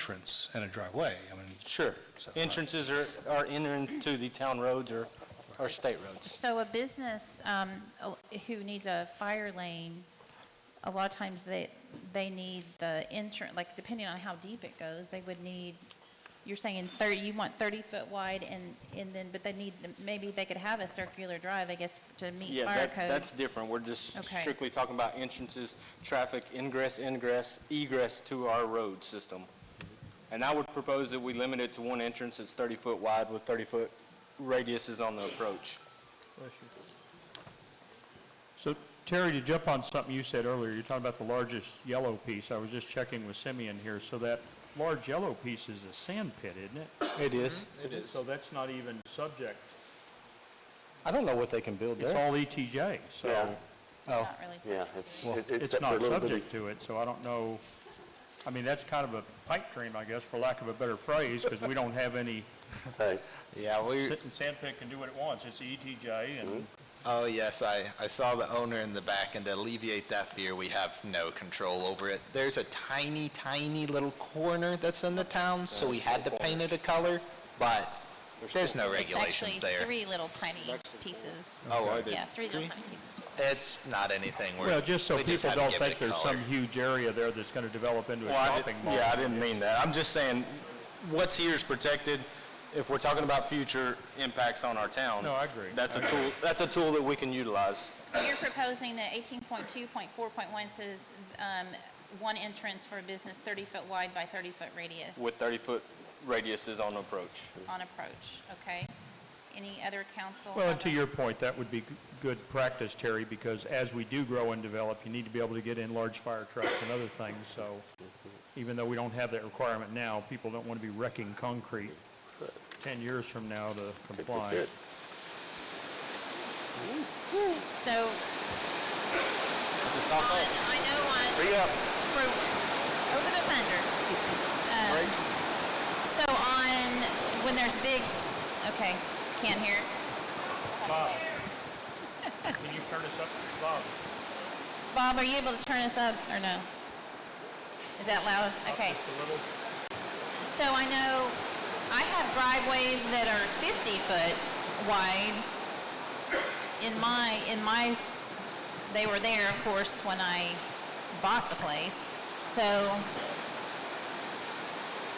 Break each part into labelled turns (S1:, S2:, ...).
S1: entrance and a driveway. I mean,
S2: Sure.
S1: So-
S3: uh,
S2: Entrances are, are entering to the town roads or, or state roads.
S4: So a business um, oh, who needs a fire lane, a lot of times they, they need the entrance, like depending on how deep it goes, they would need, you're saying 30, you want 30-foot wide and, and then, but they need, maybe they could have a circular drive, I guess, to meet
S2: Yeah,
S4: fire
S2: that,
S4: code.
S2: that's different. We're just
S4: Okay.
S2: strictly talking about entrances, traffic, ingress, ingress, egress to our road system. And I would propose that we limit it to one entrance that's 30-foot wide with 30-foot radiuses on the approach.
S3: So Terry, to jump on something you said earlier, you're talking about the largest yellow piece. I was just checking with Simeon here. So that large yellow piece is a sand pit, isn't it?
S5: It is.
S3: Mm-hmm. It is. So that's not even subject.
S5: I don't know what they can build
S3: It's
S5: there.
S3: all ETJ, so
S6: Yeah.
S5: Oh,
S4: Not really
S6: Yeah,
S4: subject.
S6: it's,
S5: Well,
S6: it-
S3: it's
S6: except for a
S3: not
S6: little bit of
S3: subject to it. So I don't know, I mean, that's kind of a pipe dream, I guess, for lack of a better phrase, because we don't have any,
S6: say.
S7: Yeah, we,
S3: sit- sand pit can do what it wants. It's ETJ and
S7: oh yes, I, I saw the owner in the back and to alleviate that fear, we have no control over it. There's a tiny, tiny little corner that's in the town, so we had to paint it a color, but there's no regulations
S4: It's actually
S7: there.
S4: three little tiny pieces.
S7: Oh, are there?
S4: Yeah, three little tiny pieces.
S7: It's not anything we're.
S3: Well, just so
S7: we
S3: people
S7: haven't
S3: don't
S7: given
S3: think
S7: it
S3: there's
S7: color.
S3: some huge area there that's going to develop into a
S2: Well, I
S3: shopping
S2: didn't-
S3: mall.
S2: Yeah, I didn't mean that. I'm just saying, what's here is protected. If we're talking about future impacts on our town.
S3: No, I agree.
S2: That's a tool, that's a tool that we can utilize.
S4: So you're proposing that 18.2.4.1 says um, one entrance for a business 30-foot wide by 30-foot radius.
S2: with 30-foot radiuses on approach.
S4: on approach, okay? Any other council?
S3: Well,
S4: have
S3: and to
S4: a-
S3: your point, that would be g- good practice, Terry, because as we do grow and develop, you need to be able to get in large fire trucks and other things, so even though we don't have that requirement now, people don't want to be wrecking concrete 10 years from now to comply.
S6: Good.
S4: So, on, I know on. For, over the thunder. Um, So on, when there's big, okay, can't hear.
S3: Bob, can you turn us up, Bob?
S4: Bob, are you able to turn us up or no? Is that loud? Okay.
S3: Just a little.
S4: So I know I have driveways that are 50 foot wide in my, in my, they were there, of course, when I bought the place. So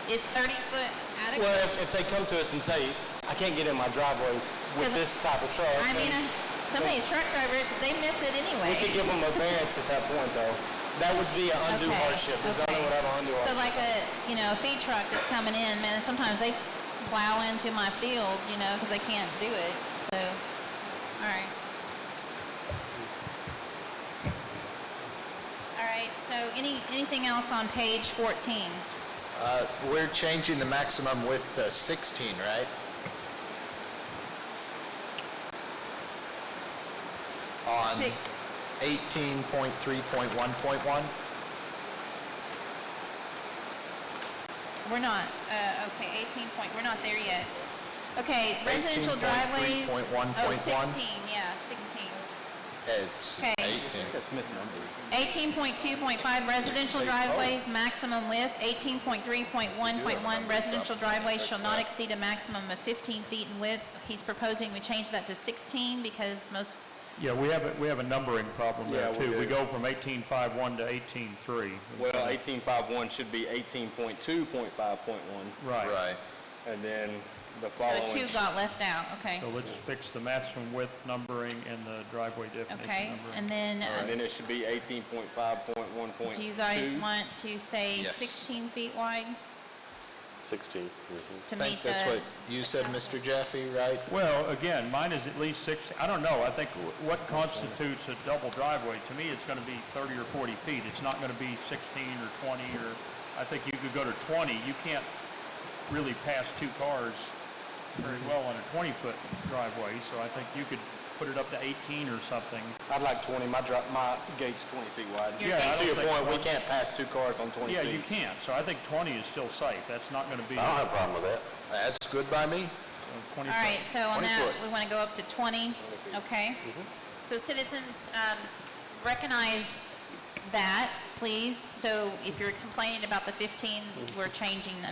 S4: is 30 foot
S2: Well,
S4: adequate?
S2: if, if they come to us and say, I can't get in my driveway with this type of truck,
S4: I mean,
S2: then
S4: I- some of these truck drivers, they miss it
S2: we could
S4: anyway.
S2: give them a variance at that point, though. That would be an undue
S4: Okay,
S2: hardship. The zoning
S4: okay.
S2: would have an undue
S4: So
S2: hardship.
S4: like a, you know, a feed truck that's coming in, man, sometimes they plow into my field, you know, because they can't do it. So, all right. All right, so any, anything else on page 14?
S7: Uh, we're changing the maximum width to sixteen, right? On
S4: Six.
S7: eighteen point three point one point one?
S4: We're not, uh, okay, 18 point, we're not there yet. Okay, residential driveways. Oh,
S7: 18.3.1.1.
S4: 16, yeah, 16.
S7: It's
S4: Okay.
S7: eighteen.
S2: That's misnumbered.
S4: 18.2.5 residential driveways, maximum width. 18.3.1.1 residential driveways shall not exceed a maximum of 15 feet in width. He's proposing we change that to 16 because most,
S3: Yeah, we have, a- we have a numbering problem there,
S2: Yeah, we
S3: too. We
S2: do.
S3: go from 18.51 to 18.3.
S2: Well, 18.5.1 should be 18.2.5.1,
S3: Right.
S7: Right.
S2: and then the
S4: so
S2: following.
S4: a 2 got left out, okay?
S3: So let's fix the maximum width numbering and the driveway definition
S4: Okay,
S3: numbering.
S4: and then, uh,
S2: And then it should be 18.5.1.2.
S4: do you guys want to say
S7: Yes.
S4: 16 feet wide
S6: 16. mhm.
S4: to
S7: I think
S4: meet the?
S7: that's what you said, Mr. Jaffe, right?
S3: Well, again, mine is at least six, I don't know, I think wh- what constitutes a double driveway, to me, it's gonna be thirty or forty feet, it's not gonna be sixteen or twenty, or, I think you could go to twenty, you can't really pass two cars very well on a twenty-foot driveway, so I think you could put it up to eighteen or something.
S2: I'd like 20. My dri my gate's 20 feet wide.
S4: Your Yeah, I
S2: To
S3: don't
S2: your
S3: think-
S2: point, we can't pass two cars on 20 feet.
S3: Yeah, you can't, so I think twenty is still safe, that's not gonna be
S6: I don't have a problem with that.
S7: That's good by me.
S3: twenty
S4: All right, so on
S7: 20
S4: that,
S7: foot.
S4: we want to go up
S3: Mm-hmm.
S4: to 20, okay? So citizens, um, recognize
S3: Mm-hmm.
S4: that, please. So if you're complaining about the 15, we're changing